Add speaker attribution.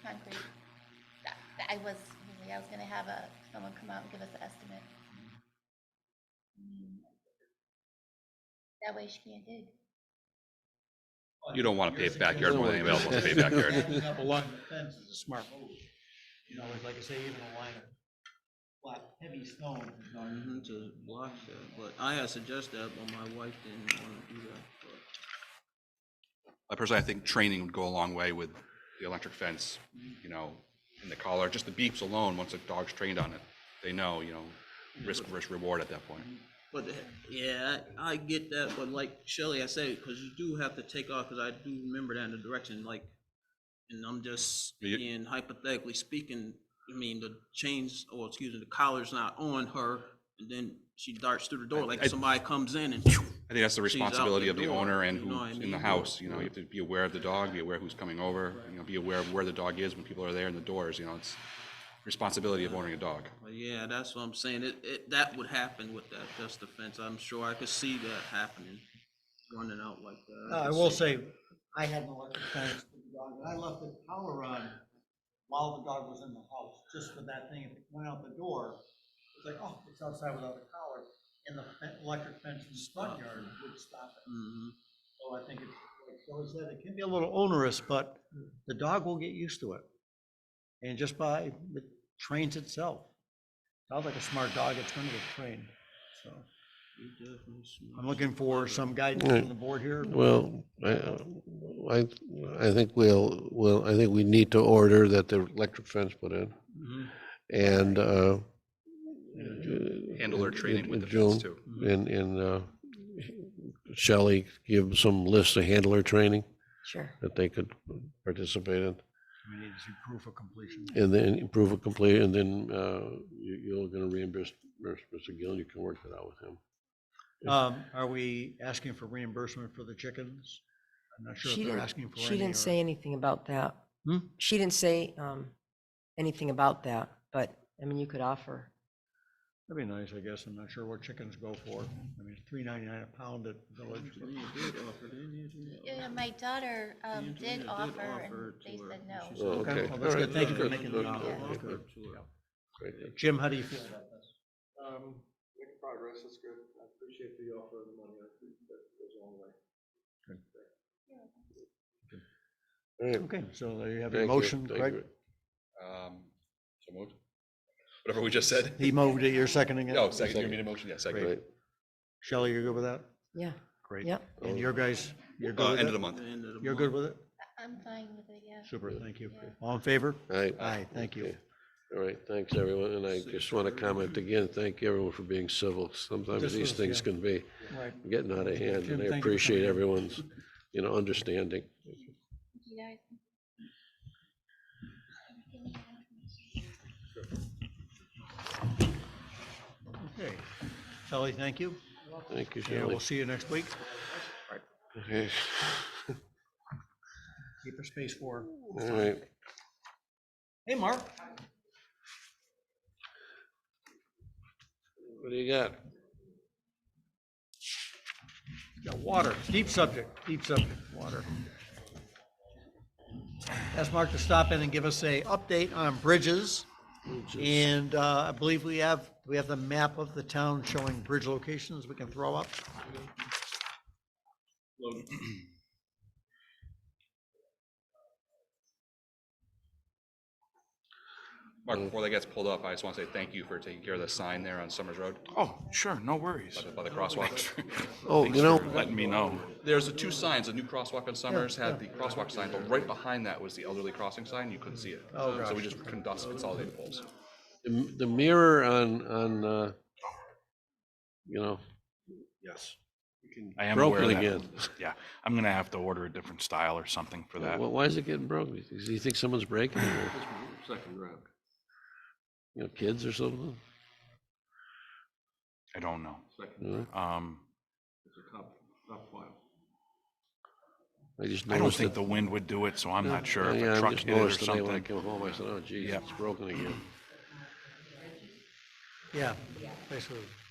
Speaker 1: concrete. That- that I was, I was gonna have a, someone come out and give us an estimate. Mm. That way she can't dig.
Speaker 2: You don't wanna
Speaker 3: You're
Speaker 2: pave backyard more than
Speaker 3: thinking-
Speaker 2: anybody else wants to pave backyard.
Speaker 3: Backing up along the fence is a smart move. You know, it's like I say, even a line of black, heavy stone is not
Speaker 4: Mhm, to block that, but I had suggested that, but my wife didn't want to do that, but
Speaker 2: I personally, I think training would go a long way with the electric fence, you know, and the collar, just the beeps alone, once the dog's trained on it, they know, you know, risk versus reward at that point.
Speaker 4: But, the- yeah, I I get that, but like Shelley, I say, because you do have to take off, because I do remember that in the direction, like, and I'm just,
Speaker 2: Yeah.
Speaker 4: being hypothetically speaking, I mean, the chains, or excuse me, the collar's not on her, and then she darts through the door,
Speaker 2: I-
Speaker 4: like somebody comes in and
Speaker 2: I think that's the
Speaker 4: She's out
Speaker 2: responsibility
Speaker 4: the
Speaker 2: of the
Speaker 4: door,
Speaker 2: owner and
Speaker 4: you know what I
Speaker 2: who's in the
Speaker 4: mean?
Speaker 2: house, you know, you have to be aware of the dog, be aware who's coming over, you know, be aware of where the dog is when people are there and the doors, you know, it's responsibility of owning a dog.
Speaker 4: But yeah, that's what I'm saying. It, it, that would happen with that just defense. I'm sure I could see that happening, running out like that.
Speaker 3: No, Uh, I
Speaker 4: could
Speaker 3: will
Speaker 4: see-
Speaker 3: say, I had an electric fence with the dog, and I left the power on while the dog was in the house, just for that thing, if it went out the door, it's like, oh, it's outside without a collar, and the fen- electric fence in the front yard would stop it.
Speaker 4: Mhm.
Speaker 3: So I think it's, like Joe said, it can be a little onerous, but the dog will get used to it. And just by, it trains itself. Sounds like a smart dog, it's gonna get trained, so.
Speaker 4: You definitely smart.
Speaker 3: I'm looking for some guidance from the board here.
Speaker 5: Well, I, I, I think we'll, well, I think we need to order that the electric fence put in
Speaker 2: Mm-hmm.
Speaker 4: Mhm.
Speaker 5: and, uh.
Speaker 2: Handle their
Speaker 5: in-
Speaker 2: training
Speaker 5: in-
Speaker 2: with
Speaker 5: in
Speaker 2: the fence
Speaker 5: June,
Speaker 2: too. Mm-hmm.
Speaker 5: And, and, uh, Shelley give some list of handler training
Speaker 6: Sure.
Speaker 5: that they could participate in.
Speaker 3: We need some proof of completion.
Speaker 5: And then proof of complete, and then, uh, you, you're gonna reimburse, reimburse Mr. Gill, you can work that out with him.
Speaker 3: Um, are we asking for reimbursement for the chickens? I'm not sure
Speaker 6: She
Speaker 3: if they're
Speaker 6: didn't,
Speaker 3: asking for any.
Speaker 6: she
Speaker 3: or-
Speaker 6: didn't say anything about that.
Speaker 3: Hmm?
Speaker 6: She didn't say um, anything about that, but, I mean, you could offer.
Speaker 3: That'd be nice, I guess. I'm not sure what chickens go for. I mean, three ninety-nine a pound at Village.
Speaker 4: You did offer, didn't you? You did
Speaker 1: Yeah,
Speaker 4: offer.
Speaker 1: my daughter um,
Speaker 4: Antonia
Speaker 1: did
Speaker 4: did
Speaker 1: offer
Speaker 4: offer
Speaker 1: and
Speaker 4: it
Speaker 1: they
Speaker 4: to her,
Speaker 1: said
Speaker 4: and she
Speaker 1: no.
Speaker 4: said-
Speaker 5: Okay.
Speaker 3: Okay, well, that's
Speaker 5: all right,
Speaker 3: good. Thank you for
Speaker 5: good,
Speaker 3: making
Speaker 5: good,
Speaker 3: the uh,
Speaker 5: good,
Speaker 3: offer.
Speaker 5: good,
Speaker 4: Offer
Speaker 5: good.
Speaker 4: it to her.
Speaker 5: Great, good.
Speaker 3: Jim, how do you feel about this?
Speaker 7: Um, making progress, that's good. I appreciate the offer of the money. I think that goes a long way.
Speaker 5: All right,
Speaker 3: Okay, so there you have your
Speaker 5: thank you,
Speaker 3: motion,
Speaker 5: thank
Speaker 3: Greg.
Speaker 5: you.
Speaker 2: Um, so moved. Whatever we just said.
Speaker 3: He moved it, you're seconding it?
Speaker 2: No, Oh, second, you made a motion, yeah, second.
Speaker 5: Right.
Speaker 3: Shelley, you're good with that?
Speaker 6: Yeah,
Speaker 3: Great.
Speaker 6: yep.
Speaker 3: And your guys, you're
Speaker 2: Uh,
Speaker 3: good
Speaker 2: end of
Speaker 3: with
Speaker 2: the
Speaker 3: it?
Speaker 2: month.
Speaker 4: The end of the
Speaker 3: You're good
Speaker 4: month.
Speaker 3: with it?
Speaker 1: I'm fine with it, yeah.
Speaker 3: Super, thank you.
Speaker 1: Yeah.
Speaker 3: All in favor?
Speaker 5: Aye.
Speaker 3: Aye, thank you.
Speaker 5: Okay. All right, thanks, everyone, and I just want to comment again, thank everyone for being civil. Sometimes
Speaker 3: This
Speaker 5: these
Speaker 3: was,
Speaker 5: things
Speaker 3: yeah.
Speaker 5: can be
Speaker 3: Right.
Speaker 5: getting out of hand,
Speaker 3: Jim,
Speaker 5: and I
Speaker 3: thank you for
Speaker 5: appreciate
Speaker 3: coming.
Speaker 5: everyone's, you know, understanding.
Speaker 1: You guys.
Speaker 3: Okay. Shelley, thank you.
Speaker 5: Thank you,
Speaker 3: Yeah,
Speaker 5: Shelley.
Speaker 3: we'll see you next week.
Speaker 5: Okay,
Speaker 3: Keep your space for.
Speaker 5: all right.
Speaker 3: Hey, Mark.
Speaker 5: What do you got?
Speaker 3: Yeah, water, deep subject, deep subject, water. Ask Mark to stop in and give us a update on bridges. And uh, I believe we have, we have the map of the town showing bridge locations we can throw up.
Speaker 2: Mark,
Speaker 3: Mm.
Speaker 2: before that gets pulled up, I just want to say thank you for taking care of the sign there on Summers Road
Speaker 8: Oh, sure, no worries.
Speaker 2: by the- by the crosswalk.
Speaker 5: Oh, you know,
Speaker 8: Letting me know.
Speaker 2: There's the two signs, a new crosswalk on Summers had the crosswalk sign, but right behind that was the elderly crossing sign, you couldn't see it.
Speaker 3: Oh,
Speaker 2: So we
Speaker 3: gosh.
Speaker 2: just con- thus consolidated poles.
Speaker 5: the the mirror on, on, uh, you know,
Speaker 8: Yes. I am aware of
Speaker 5: broken
Speaker 8: that.
Speaker 5: again.
Speaker 8: Yeah, I'm gonna have to order a different style or something for that.
Speaker 5: Why why is it getting broken? Do you think someone's breaking it, or,
Speaker 7: Second round.
Speaker 5: you know, kids or something?
Speaker 8: I don't know.
Speaker 7: Second,
Speaker 5: No?
Speaker 8: Um,
Speaker 7: it's a top, top file.
Speaker 5: I just
Speaker 8: I don't
Speaker 5: noticed
Speaker 8: think
Speaker 5: it.
Speaker 8: the wind would do it, so I'm not sure if
Speaker 5: Yeah,
Speaker 8: a
Speaker 5: I
Speaker 8: truck
Speaker 5: just
Speaker 8: hit it or
Speaker 5: noticed today when I
Speaker 8: something.
Speaker 5: came home, I said, oh geez,
Speaker 8: Yeah.
Speaker 5: it's broken again.
Speaker 3: Yeah, basically,